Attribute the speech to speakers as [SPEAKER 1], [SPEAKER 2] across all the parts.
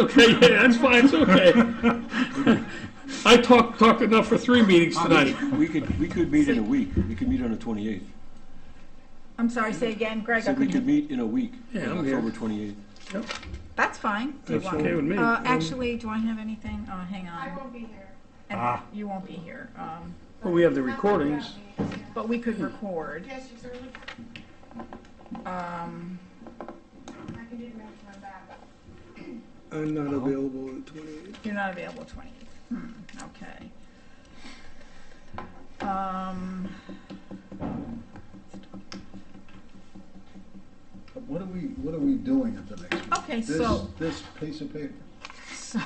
[SPEAKER 1] Okay, yeah, that's fine, it's okay. I talked, talked enough for three meetings tonight.
[SPEAKER 2] We could, we could meet in a week. We could meet on the 28th.
[SPEAKER 3] I'm sorry, say again, Greg. I
[SPEAKER 2] So we
[SPEAKER 3] couldn't-
[SPEAKER 2] could meet in a week, on
[SPEAKER 1] Yeah, I'm here.
[SPEAKER 2] October 28th.
[SPEAKER 3] That's fine. Do you
[SPEAKER 1] That's
[SPEAKER 3] want-
[SPEAKER 1] okay with me.
[SPEAKER 3] Uh, actually, do I have anything? Oh, hang
[SPEAKER 4] I
[SPEAKER 3] on.
[SPEAKER 4] won't be here.
[SPEAKER 3] And
[SPEAKER 1] Ah.
[SPEAKER 3] You won't be here. Um,
[SPEAKER 1] Well, we have the
[SPEAKER 4] I'm not
[SPEAKER 1] recordings.
[SPEAKER 4] around me.
[SPEAKER 3] but we could record.
[SPEAKER 4] Yes, you certainly,
[SPEAKER 3] Um,
[SPEAKER 4] I can do the math on that.
[SPEAKER 5] I'm not available on the 28th.
[SPEAKER 3] you're not available twentieth. Hmm, okay. Um,
[SPEAKER 6] What are we, what are we doing at the next meeting?
[SPEAKER 3] okay,
[SPEAKER 6] This,
[SPEAKER 3] so,
[SPEAKER 6] this piece of paper?
[SPEAKER 3] so,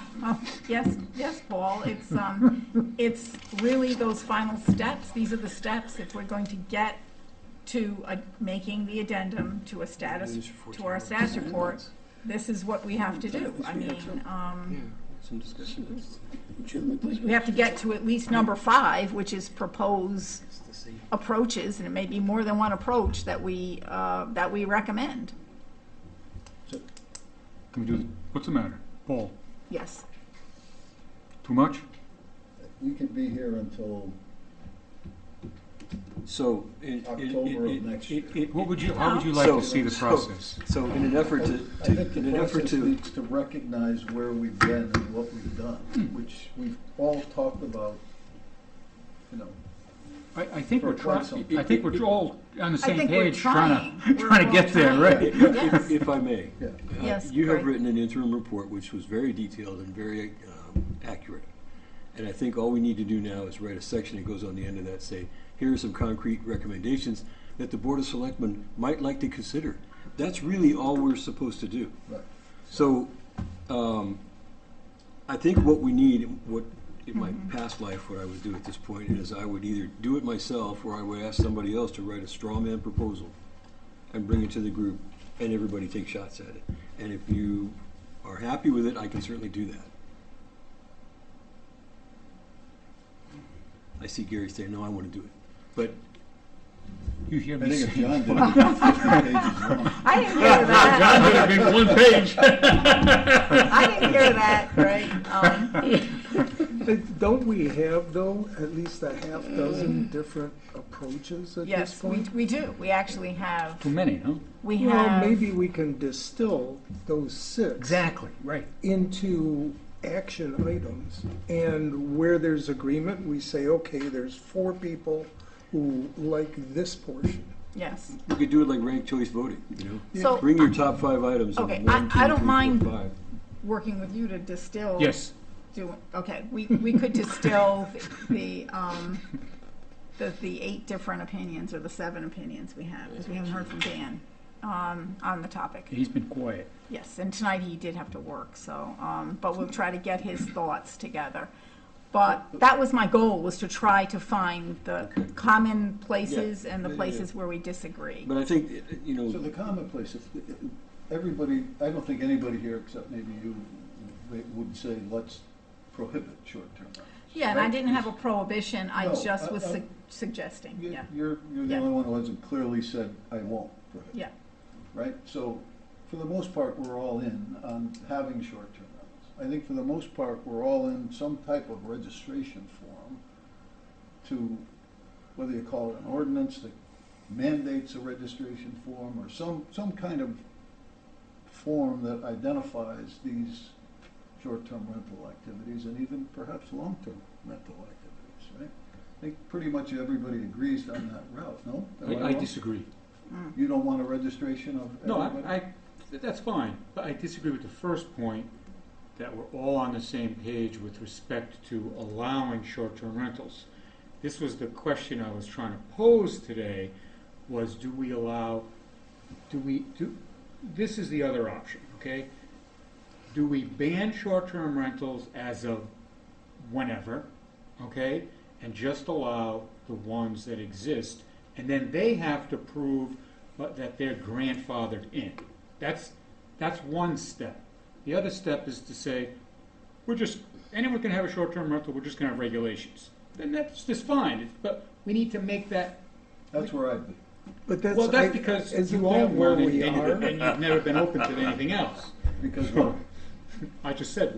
[SPEAKER 3] yes, yes, Paul, it's, um, it's really those final steps. These are the steps if we're going to get to, uh, making the addendum to a status, to our status report. This is what we have to do. I mean, um,
[SPEAKER 2] Some discussion.
[SPEAKER 3] we have to get to at least number five, which is propose approaches, and it may be more than one approach that we, uh, that we recommend.
[SPEAKER 7] Can we do, th- what's the matter? Paul,
[SPEAKER 3] Yes.
[SPEAKER 7] too much?
[SPEAKER 6] We could be here until,
[SPEAKER 2] So. in- in-
[SPEAKER 6] October of
[SPEAKER 2] in-
[SPEAKER 6] next
[SPEAKER 2] in- in-
[SPEAKER 7] What would you, how would you like
[SPEAKER 2] So-
[SPEAKER 7] to see the
[SPEAKER 2] so-
[SPEAKER 7] process?
[SPEAKER 2] So in an
[SPEAKER 6] I
[SPEAKER 2] effort to,
[SPEAKER 6] I
[SPEAKER 2] to,
[SPEAKER 6] think
[SPEAKER 2] in
[SPEAKER 6] the
[SPEAKER 2] an effort
[SPEAKER 6] process
[SPEAKER 2] to,
[SPEAKER 6] needs to recognize where we've been and what we've done,
[SPEAKER 3] Hmm.
[SPEAKER 6] which we've all talked about, you know,
[SPEAKER 7] I, I think we're
[SPEAKER 6] For
[SPEAKER 7] trying,
[SPEAKER 6] council.
[SPEAKER 7] I think we're all on the
[SPEAKER 3] I
[SPEAKER 7] same
[SPEAKER 3] think we're
[SPEAKER 7] page, trying to,
[SPEAKER 3] trying. We're
[SPEAKER 7] trying to
[SPEAKER 3] all
[SPEAKER 7] get there,
[SPEAKER 3] trying.
[SPEAKER 7] right?
[SPEAKER 3] Yes.
[SPEAKER 2] if I may.
[SPEAKER 6] yeah.
[SPEAKER 2] uh,
[SPEAKER 3] Yes,
[SPEAKER 2] You have
[SPEAKER 3] Greg.
[SPEAKER 2] written an interim report which was very detailed and very um, accurate. And I think all we need to do now is write a section that goes on the end of that, say, here are some concrete recommendations that the Board of Selectmen might like to consider. That's really all we're supposed to do.
[SPEAKER 6] Right.
[SPEAKER 2] So, um, I think what we need, what, in my
[SPEAKER 3] Mm-hmm.
[SPEAKER 2] past life, what I would do at this point is I would either do it myself or I would ask somebody else to write a straw man proposal and bring it to the group and everybody take shots at it. And if you are happy with it, I can certainly do that. I see Gary saying, no, I want to do it. But
[SPEAKER 7] You hear me
[SPEAKER 6] I
[SPEAKER 7] Oh,
[SPEAKER 6] think if
[SPEAKER 7] say.
[SPEAKER 6] John did it, it'd be fifty pages long.
[SPEAKER 3] I didn't hear that.
[SPEAKER 1] John did it in one page.
[SPEAKER 3] I didn't hear that, Greg. Um,
[SPEAKER 5] But Don't we have, though, at least a half dozen different approaches at this
[SPEAKER 3] yes, we,
[SPEAKER 5] point?
[SPEAKER 3] we do. We actually have,
[SPEAKER 7] Too many, huh?
[SPEAKER 3] we
[SPEAKER 5] Well,
[SPEAKER 3] have,
[SPEAKER 5] maybe we can distill those six
[SPEAKER 7] Exactly, right.
[SPEAKER 5] into action items. And where there's agreement, we say, okay, there's four people who like this portion.
[SPEAKER 3] yes.
[SPEAKER 2] you could do it like ranked choice voting, you know?
[SPEAKER 3] So
[SPEAKER 2] Bring your top five items of
[SPEAKER 3] Okay,
[SPEAKER 2] one,
[SPEAKER 3] I-
[SPEAKER 2] two,
[SPEAKER 3] I don't
[SPEAKER 2] three, four,
[SPEAKER 3] mind-
[SPEAKER 2] five.
[SPEAKER 3] working with you to distill.
[SPEAKER 7] Yes,
[SPEAKER 3] Do, okay, we, we could distill the, um, the, the eight different opinions or the seven opinions we have, because we haven't heard from Dan, um, on the topic.
[SPEAKER 7] he's been quiet.
[SPEAKER 3] Yes, and tonight he did have to work, so, um, but we'll try to get his thoughts together. But that was my goal, was to try to find the common places and the
[SPEAKER 2] Yeah, yeah, yeah.
[SPEAKER 3] places where we disagree.
[SPEAKER 2] But I think, uh, uh, you know.
[SPEAKER 6] So the commonplace, if, if everybody, I don't think anybody here except maybe you they would say, let's prohibit short-term rentals.
[SPEAKER 3] Yeah, and I
[SPEAKER 6] right?
[SPEAKER 3] didn't have a prohibition, I
[SPEAKER 6] No,
[SPEAKER 3] just
[SPEAKER 6] I-
[SPEAKER 3] was
[SPEAKER 6] I-
[SPEAKER 3] sug- suggesting,
[SPEAKER 6] You-
[SPEAKER 3] yeah,
[SPEAKER 6] You're, you're the
[SPEAKER 3] Yeah.
[SPEAKER 6] only one who hasn't clearly said, I won't prohibit,
[SPEAKER 3] yeah.
[SPEAKER 6] right? So for the most part, we're all in on having short-term rentals. I think for the most part, we're all in some type of registration form to, whether you call it an ordinance that mandates a registration form or some, some kind of form that identifies these short-term rental activities and even perhaps long-term rental activities, right? I think pretty much everybody agrees on that route, no? Am
[SPEAKER 7] I, I
[SPEAKER 6] wrong?
[SPEAKER 7] disagree.
[SPEAKER 6] You don't want a registration of
[SPEAKER 7] No,
[SPEAKER 6] everybody?
[SPEAKER 7] I, I, that's fine, but I disagree with the first point, that we're all on the same page with respect to allowing short-term rentals. This was the question I was trying to pose today, was do we allow, do we, do, this is the other option, okay? Do we ban short-term rentals as of whenever, okay? And just allow the ones that exist, and then they have to prove but that they're grandfathered in. That's, that's one step. The other step is to say, we're just, anyone can have a short-term rental, we're just gonna have regulations. Then that's just fine, it's- but we need to make that,
[SPEAKER 6] That's where I'd be.
[SPEAKER 5] But that's.
[SPEAKER 7] well,
[SPEAKER 5] I-
[SPEAKER 7] that's because
[SPEAKER 5] isn't
[SPEAKER 7] you
[SPEAKER 5] that
[SPEAKER 7] own
[SPEAKER 5] where
[SPEAKER 7] one and
[SPEAKER 5] we
[SPEAKER 7] and
[SPEAKER 5] are?
[SPEAKER 7] you- and you've never been open to anything else.
[SPEAKER 6] Because what?
[SPEAKER 7] I just said,